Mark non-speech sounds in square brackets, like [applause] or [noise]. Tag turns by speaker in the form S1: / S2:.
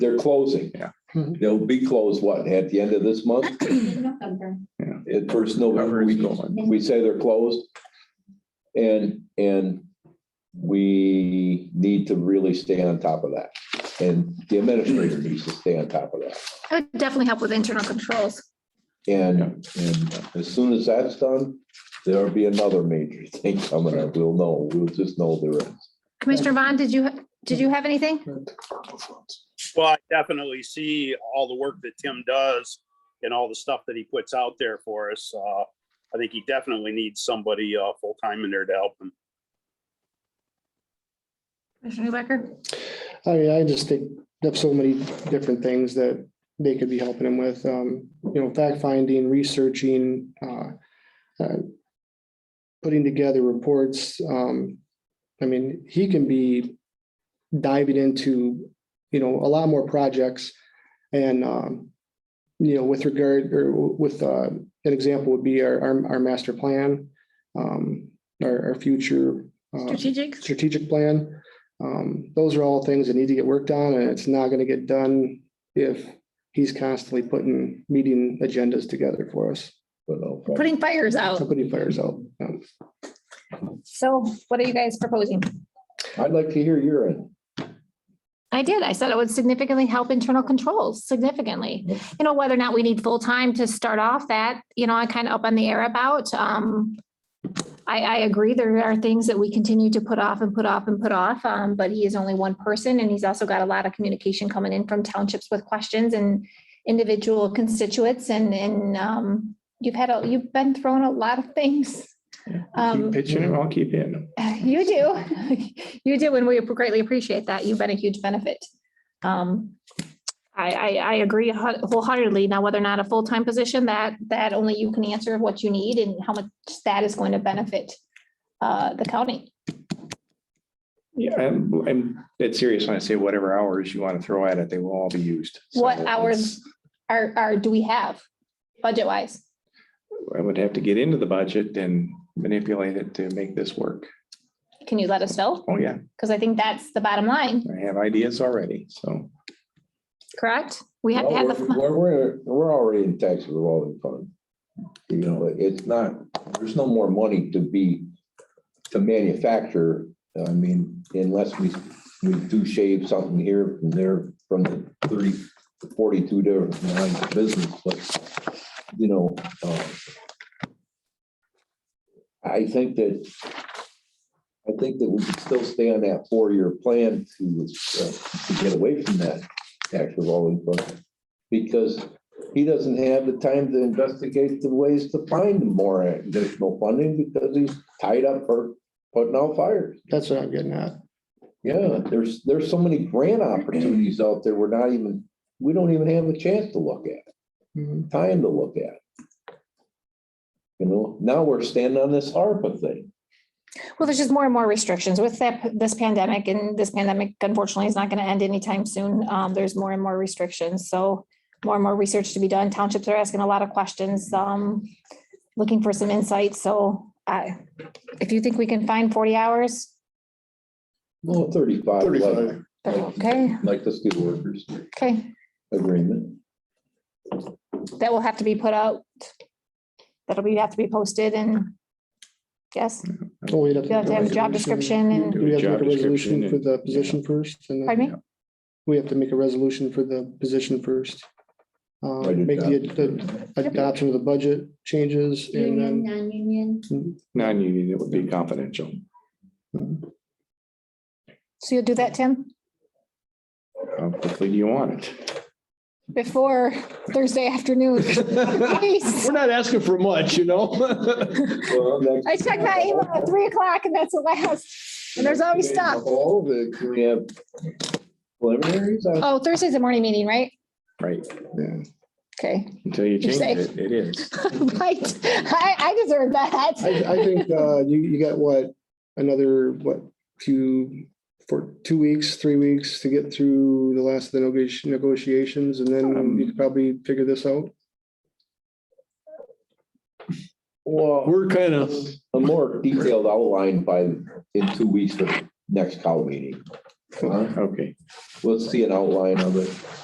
S1: They're closing.
S2: Yeah.
S3: Mhm.
S1: They'll be closed, what, at the end of this month?
S4: in November.
S1: At first November, we, we say they're closed. And, and we need to really stay on top of that. And the administrator needs to stay on top of that.
S5: That would definitely help with internal controls.
S1: And, and as soon as that's done, there'll be another major [laughs] thing coming up. We'll know, we'll just know there is.
S5: Commissioner Vaughn, did you, did you have anything?
S6: Well, I definitely see all the work that Tim does and all the stuff that he puts out there for us. Uh, I think he definitely needs somebody, uh, full-time in there to help him.
S5: Commissioner Newbecker?
S3: I mean, I just think there's so many different things that they could be helping him with, um, you know, fact finding, researching, uh, uh, putting together reports, um, I mean, he can be diving into, you know, a lot more projects and, um, you know, with regard, or with, uh, an example would be our, our, our master plan, um, our, our future. uh,
S5: Strategic?
S3: strategic plan. Um, those are all things that need to get worked on and it's not gonna get done if he's constantly putting meeting agendas together for us.
S1: But no,
S5: Putting fires out.
S3: Somebody fires out. um,
S5: So what are you guys proposing?
S1: I'd like to hear your end.
S5: I did. I said it would significantly help internal controls significantly. You know, whether or not we need full time to start off that, you know, I kind of up on the air about. Um, I, I agree. There are things that we continue to put off and put off and put off. Um, but he is only one person and he's also got a lot of communication coming in from townships with questions and individual constituents and, and, um, you've had, a you've been thrown a lot of things. Um,
S7: Keep pitching him, I'll keep hitting him.
S5: uh, [laughs] You do. [laughs] You do, and we greatly appreciate that. You've been a huge benefit. Um, I, I, I agree hu- wholeheartedly. Now, whether or not a full-time position, that, that only you can answer what you need and how much that is going to benefit uh, the county.
S7: Yeah, I'm, I'm dead serious when I say whatever hours you want to throw at it, they will all be used. So
S5: What hours
S7: it's-
S5: are, are, do we have budget-wise?
S7: I would have to get into the budget and manipulate it to make this work.
S5: Can you let us know?
S7: Oh, yeah,
S5: Because I think that's the bottom line,
S7: I have ideas already, so.
S5: correct? We have to
S1: Well,
S5: have
S1: We're,
S5: the,
S1: we're, we're- we're already in tax revolving fund. You know, it's not, there's no more money to be, to manufacture. I mean, unless we, we do shave something here and there from the thirty, forty-two different lines of business, but, you know, um, I think that, I think that we can still stay on that four-year plan to, uh, to get away from that tax revolving fund because he doesn't have the time to investigate the ways to find more additional funding because he's tied up for putting out fires.
S3: That's what I'm getting at.
S1: Yeah, there's, there's so many grant opportunities out there. We're not even, we don't even have a chance to look at,
S3: Mhm.
S1: time to look at. You know, now we're standing on this ARPA thing.
S5: well, there's just more and more restrictions with that, this pandemic and this pandemic unfortunately is not going to end anytime soon. Um, there's more and more restrictions, so more and more research to be done. Townships are asking a lot of questions, um, looking for some insight, so I, if you think we can find forty hours,
S1: No, thirty-five, like,
S3: 35.
S5: then okay,
S1: like the steel workers
S5: okay.
S1: agreement.
S5: that will have to be put out. That'll be, have to be posted and yes,
S3: Oh, we'd have
S5: you'll have to have a job description and,
S7: Do
S3: Do we have to
S7: job
S3: make a
S7: description
S3: resolution for
S7: and-
S3: the position first? and then-
S5: pardon me?
S3: We have to make a resolution for the position first. Uh,
S1: Write it
S3: make the, the
S1: down.
S3: adoption of the budget changes and
S4: Union,
S5: Mm-hmm.
S3: then,
S4: non-union,
S7: Non-union, it would be confidential.
S5: So you'll do that, Tim,
S7: How quickly do you want it?
S5: before Thursday afternoon? Please.
S8: We're not asking for much, you know?
S1: Well, next-
S5: I check my email at three o'clock and that's the last, and there's always stuff.
S1: All the, we have preliminaries on
S5: Oh, Thursday's a morning meeting, right?
S7: Right,
S5: Okay.
S7: until you
S5: You're
S7: change
S5: safe.
S7: it, it is.
S5: [laughs] Right, I, I deserve
S3: I, I
S5: that.
S3: think, uh, you, you got what, another, what, two, for two weeks, three weeks to get through the last of the negoti- negotiations and then you could probably figure this out.
S1: Well,
S8: We're kind of,
S1: a more detailed outline by, in two weeks for the next call meeting. Huh?
S7: Okay.
S1: We'll see an outline of it.